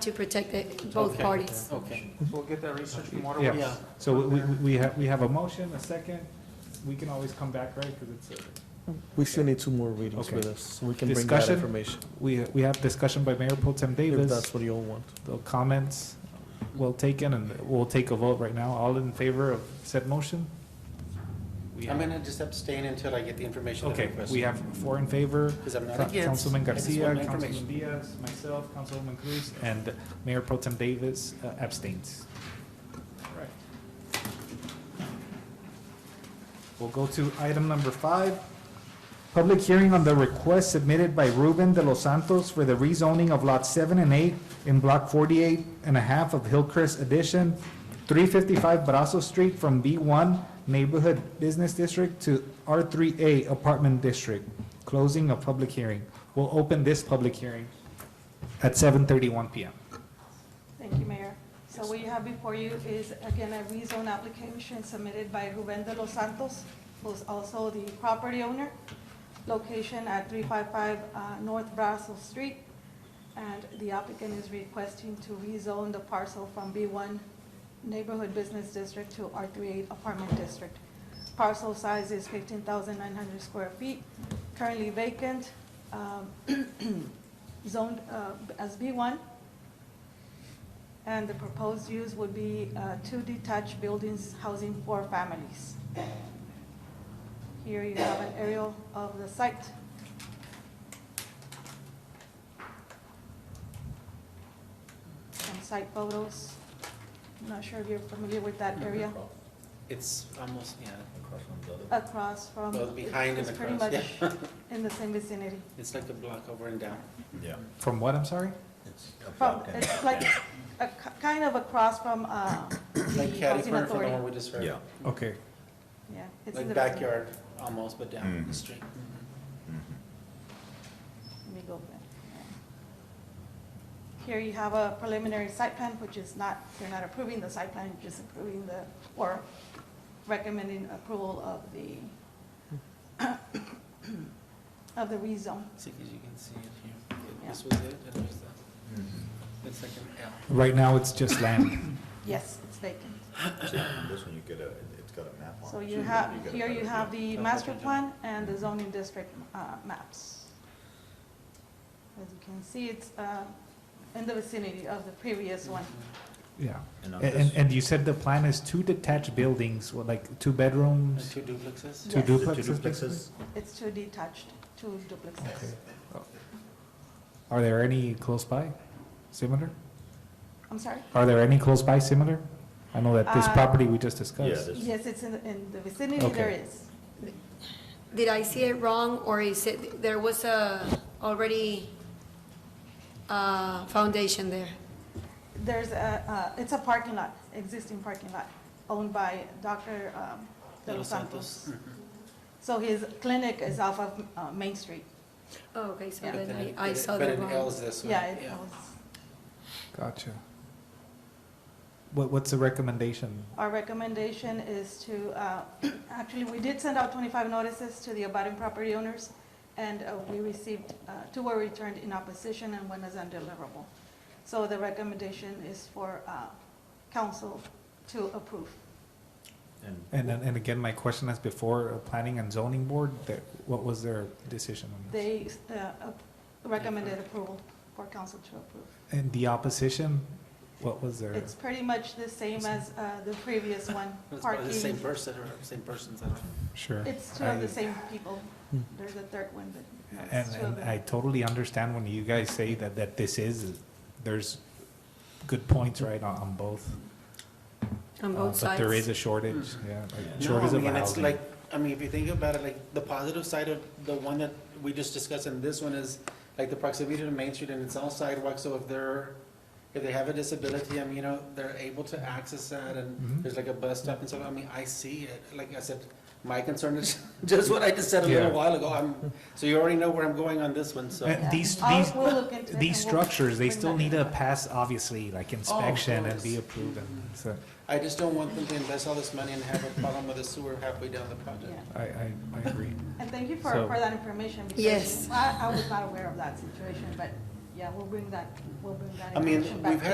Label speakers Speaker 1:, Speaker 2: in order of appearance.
Speaker 1: to protect the- both
Speaker 2: Okay.
Speaker 1: parties.
Speaker 2: Okay.
Speaker 3: We'll get that research from Water Works.
Speaker 2: Yeah.
Speaker 4: Yeah, so we, we- we have, we have a motion, a second, we can always come back, right, because it's, a-
Speaker 5: We still need two more readings
Speaker 4: Okay.
Speaker 5: with us, so we can bring that
Speaker 4: Discussion?
Speaker 5: information,
Speaker 4: we, we have discussion by Mayor Pro Tem
Speaker 5: if
Speaker 4: Davis,
Speaker 5: that's what you all want.
Speaker 4: the comments well taken, and we'll take a vote right now, all in favor of said motion? We
Speaker 2: I'm
Speaker 4: have-
Speaker 2: gonna just abstain until I get the information that I
Speaker 4: Okay,
Speaker 2: requested.
Speaker 4: we have four in favor,
Speaker 2: Because I'm not
Speaker 4: Ca-
Speaker 2: against.
Speaker 4: Councilman
Speaker 2: I just want
Speaker 4: Garcia,
Speaker 2: my
Speaker 4: Councilman
Speaker 2: information.
Speaker 4: Diaz, myself, Councilwoman Cruz, and Mayor Pro Tem Davis uh, abstains. All right. We'll go to item number five. Public hearing on the request submitted by Ruben de los Santos for the rezoning of Lot 7 and 8 in Block 48 and a half of Hillcrest Addition, 355 Brazos Street from B1 Neighborhood Business District to R3A Apartment District. Closing of public hearing. We'll open this public hearing at 7:31 PM.
Speaker 6: Thank you, Mayor. So what you have before you is, again, a rezone application submitted by Ruben de los Santos, who's also the property owner, location at 355 uh, North Brazos Street. And the applicant is requesting to rezone the parcel from B1 Neighborhood Business District to R38 Apartment District. Parcel size is 15,900 square feet, currently vacant, um, zoned uh, as B1. And the proposed use would be uh, two detached buildings housing four families. Here you have an aerial of the site. Some site photos. I'm not sure if you're familiar with that area
Speaker 2: It's almost, yeah,
Speaker 6: across from.
Speaker 2: Well, behind and
Speaker 6: It's pretty
Speaker 2: across,
Speaker 6: much in the same vicinity.
Speaker 2: it's like a block over and down.
Speaker 7: Yeah.
Speaker 4: From what, I'm sorry?
Speaker 6: From, Oh, it's like, a ki- kind of across from uh, the
Speaker 2: Like catty corner
Speaker 6: housing
Speaker 2: from the
Speaker 6: authority.
Speaker 2: one we just heard.
Speaker 7: Yeah.
Speaker 4: Okay.
Speaker 6: Yeah. it's in
Speaker 2: Like
Speaker 6: the vicinity.
Speaker 2: backyard, almost, but down
Speaker 4: Mm-hmm.
Speaker 2: the
Speaker 7: Mhm.
Speaker 2: street. Mhm.
Speaker 6: Let me go back. Here you have a preliminary site plan, which is not, you're not approving the site plan, you're just approving the, or recommending approval of the, of the rezone.
Speaker 2: See, 'cause you can see it here.
Speaker 6: Yeah.
Speaker 2: This was it, and there's that. It's like an L.
Speaker 4: Right now, it's just land.
Speaker 6: Yes, it's vacant.
Speaker 7: This one you get a, it's got a map on it.
Speaker 6: So you
Speaker 7: get-
Speaker 6: have,
Speaker 7: get a
Speaker 6: here you
Speaker 7: better
Speaker 6: have
Speaker 7: view.
Speaker 6: the
Speaker 2: That's
Speaker 6: master
Speaker 2: what I
Speaker 6: plan and the zoning district uh, maps. As you can see, it's uh, in the vicinity of the previous one.
Speaker 4: Yeah,
Speaker 7: And on
Speaker 4: A- and,
Speaker 7: this-
Speaker 4: and you said the plan is two detached buildings, what, like two
Speaker 2: And
Speaker 4: bedrooms,
Speaker 2: two duplexes?
Speaker 4: two
Speaker 6: Yes.
Speaker 7: The two
Speaker 4: duplexes? basically?
Speaker 7: duplexes,
Speaker 6: It's two detached, two duplexes.
Speaker 4: Oh. Are there any close by, similar?
Speaker 6: I'm sorry?
Speaker 4: Are there any close by similar? I know that this
Speaker 6: Uh,
Speaker 4: property we just
Speaker 7: yeah,
Speaker 4: discussed.
Speaker 7: this,
Speaker 6: Yes, it's in, in the vicinity, there
Speaker 4: Okay.
Speaker 6: is.
Speaker 1: Did I see it wrong, or is it, there was a already uh, foundation there?
Speaker 6: There's a, uh, it's a parking lot, existing parking lot, owned by Dr. um, De Los Santos.
Speaker 2: Mhm.
Speaker 6: So his clinic is off of uh, Main Street.
Speaker 1: Oh, okay, so
Speaker 6: Yeah.
Speaker 2: But
Speaker 1: then
Speaker 2: it-
Speaker 1: I, I
Speaker 2: but it-
Speaker 1: saw that
Speaker 2: But an L
Speaker 1: wrong.
Speaker 2: is this one.
Speaker 6: Yeah, it owns.
Speaker 4: Gotcha. What, what's the recommendation?
Speaker 6: Our recommendation is to, uh, actually, we did send out 25 notices to the abutting property owners, and uh, we received, uh, two were returned in opposition and one is undeliverable. So the recommendation is for uh, council to approve.
Speaker 7: and
Speaker 4: And, then- and again, my question as before, uh, planning and zoning board, that, what was their decision on this?
Speaker 6: They uh, ap- recommended approval for council to approve.
Speaker 4: And the opposition, what was their?
Speaker 6: It's pretty much the same as uh, the previous one,
Speaker 2: It's probably the same
Speaker 6: parking.
Speaker 2: person or same persons, I don't know.
Speaker 4: Sure.
Speaker 6: It's two of
Speaker 4: I-
Speaker 6: the same people.
Speaker 5: Hmm.
Speaker 6: There's a third one, but no,
Speaker 4: And,
Speaker 6: it's two of
Speaker 4: and
Speaker 6: them.
Speaker 4: I uh, totally understand when you guys say that, that this is, there's good points, right, on, on both.
Speaker 1: On
Speaker 4: Uh,
Speaker 1: both
Speaker 4: But there is
Speaker 1: sides.
Speaker 4: a shortage, yeah, like
Speaker 7: Yeah.
Speaker 2: No,
Speaker 4: shortage
Speaker 2: I
Speaker 4: of
Speaker 2: mean, it's
Speaker 4: housing.
Speaker 2: like, I mean, if you think about it, like, the positive side of the one that we just discussed and this one is, like, the proximity to Main Street and it's all sidewalk, so if they're, if they have a disability, I mean, you know, they're able to access that
Speaker 4: Mhm.
Speaker 2: and there's like a bus stop and stuff, I mean, I see it, like I said, my concern is just what I just said a little
Speaker 4: Yeah.
Speaker 2: while ago, I'm, so you already know where I'm going on this one, so.
Speaker 4: Uh, These,
Speaker 6: I'll-
Speaker 4: these,
Speaker 6: we'll look into it
Speaker 4: these
Speaker 6: and we'll
Speaker 4: structures, they
Speaker 6: bring
Speaker 4: still
Speaker 6: that
Speaker 4: need
Speaker 6: in.
Speaker 4: to pass, obviously, like inspection and be
Speaker 2: Oh, course.
Speaker 4: approved, and
Speaker 2: Mhm.
Speaker 4: so,
Speaker 2: I just don't want them to invest all this money and have a problem with the sewer halfway down the project.
Speaker 6: Yeah.
Speaker 4: I, I, I agree.
Speaker 6: And thank you for,
Speaker 4: So-
Speaker 6: for that information. because
Speaker 1: Yes.
Speaker 6: I, I was not aware of that situation, but yeah, we'll bring that, we'll bring that
Speaker 2: I mean,
Speaker 6: information back
Speaker 2: we've
Speaker 6: to
Speaker 2: had